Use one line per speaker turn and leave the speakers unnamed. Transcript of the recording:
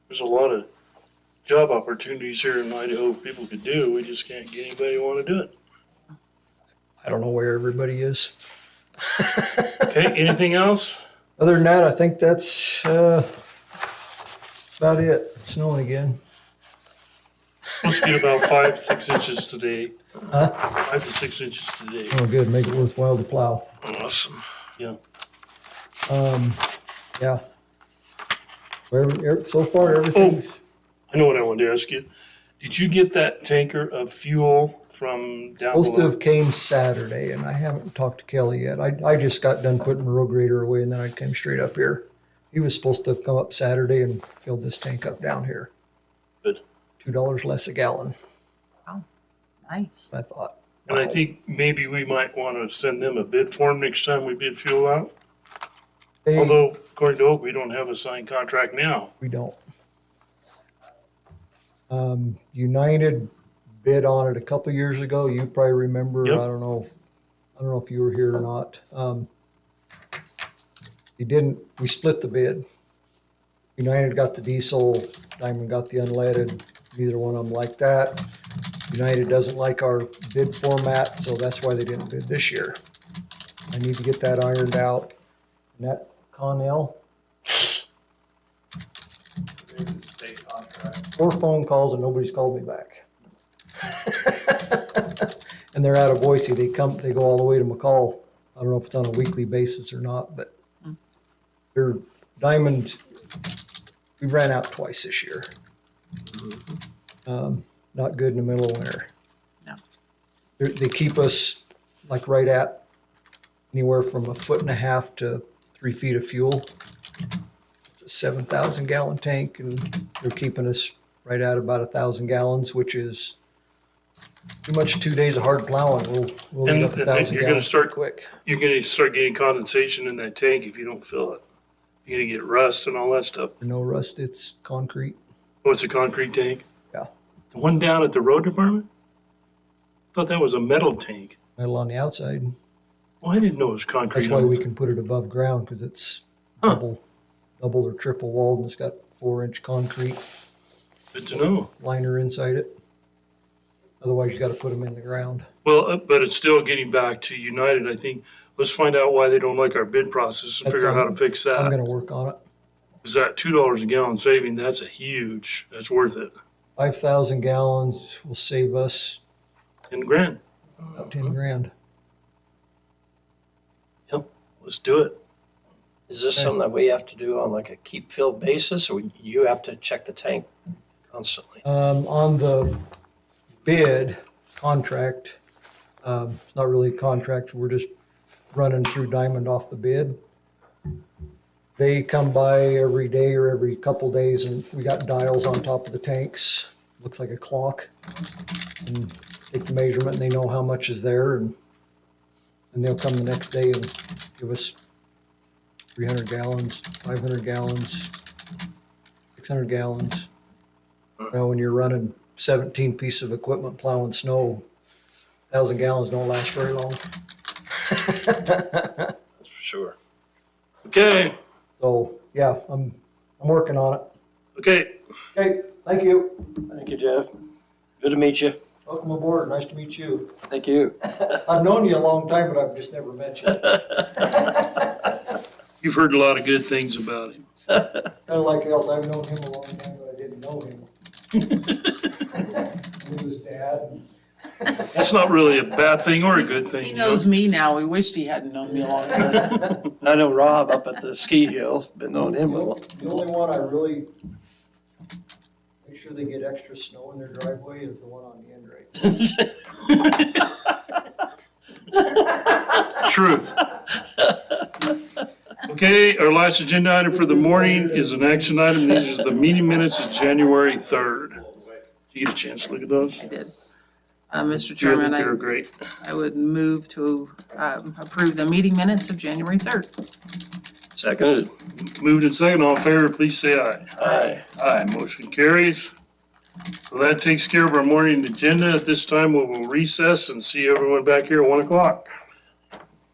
There's a lot of job opportunities here in Idaho people could do. We just can't get anybody to want to do it.
I don't know where everybody is.
Okay, anything else?
Other than that, I think that's uh, about it. It's snowing again.
Supposed to get about five, six inches today.
Huh?
Five to six inches today.
Oh, good. Make it worthwhile to plow.
Awesome. Yeah.
Um, yeah. Where, er, so far, everything's.
I know what I wanted to ask you. Did you get that tanker of fuel from down
Most
below?
of came Saturday, and I haven't talked to Kelly yet. I, I just got done putting the road grader away, and then I came straight up here. He was supposed to come up Saturday and fill this tank up down here.
Good.
Two dollars less a gallon,
Nice.
I thought.
And I think maybe we might want to send them a bid form next time we bid fuel out.
Hey,
Although according to Oak, we don't have a signed contract now.
we don't. Um, United bid on it a couple years ago. You probably remember.
Yep.
I don't know. I don't know if you were here or not. Um, you didn't. We split the bid. United got the diesel. Diamond got the unleaded. Neither one of them liked that. United doesn't like our bid format, so that's why they didn't bid this year. I need to get that ironed out. And that Connell,
State's contract.
four phone calls and nobody's called me back. And they're out of Boise. They come, they go all the way to McCall. I don't know if it's on a weekly basis or not, but they're diamond. We ran out twice this year. Um, not good in the middle of winter.
No.
They, they keep us like right at anywhere from a foot and a half to three feet of fuel. It's a seven thousand gallon tank and they're keeping us right at about a thousand gallons, which is too much two days of hard plowing. We'll, we'll
And
end up
I
a
think
thousand
you're gonna
gallons
start-
pretty quick.
You're gonna start getting condensation in that tank if you don't fill it. You're gonna get rust and all that stuff.
No rust, it's concrete.
Oh, it's a concrete tank?
Yeah.
The one down at the road department? Thought that was a metal tank.
metal on the outside.
Well, I didn't know it was concrete.
That's why we can put it above ground because it's
Huh.
double, double or triple walled and it's got four inch concrete
Good to know.
liner inside it. Otherwise, you got to put them in the ground.
Well, uh, but it's still getting back to United, I think. Let's find out why they don't like our bid process and
That's
figure out how
on-
to fix
I'm
that.
going to work on it.
Is that two dollars a gallon saving? That's a huge, that's worth it.
Five thousand gallons will save us
And grand,
about ten grand.
let's do it.
Is this
Okay.
something that we have to do on like a keep fill basis or you have to check the tank constantly?
Um, on the bid contract, um, it's not really a contract, we're just running through Diamond off the bid. They come by every day or every couple days and we got dials on top of the tanks, looks like a clock. And Take the measurement and they know how much is there and, and they'll come the next day and give us three hundred gallons, five hundred gallons, six hundred gallons. Now, when you're running seventeen pieces of equipment plowing snow, thousand gallons don't last very long.
That's for sure.
Okay,
So, yeah, I'm, I'm working on it.
okay.
Okay, thank you.
Thank you, Jeff. Good to meet you.
Welcome aboard. Nice to meet you.
Thank you.
I've known you a long time, but I've just never met you. Kind
You've heard a lot of good things about him.
of like Elt, I've known him a long time, but I didn't know him. Knew his dad.
That's not really a bad thing or a good thing.
He
you know?
knows me now. He wished he hadn't known me a long time.
I know Rob up at the ski hills, been knowing him a
The
little.
only- the only one I really make sure they get extra snow in their driveway is the one on the end right
Truth. Okay, our last agenda item for the morning is an action item. These are the meeting minutes of January third. Did you get a chance to look at those?
I did.
Yeah,
Uh, Mr.
I think
Chairman,
They're
I,
great.
I would move to, um, approve the meeting minutes of January third.
Seconded.
Moved and second, all in favor, please say aye.
Aye.
Aye, motion carries. Well, that takes care of our morning agenda. At this time, we will recess and see everyone back here at one o'clock.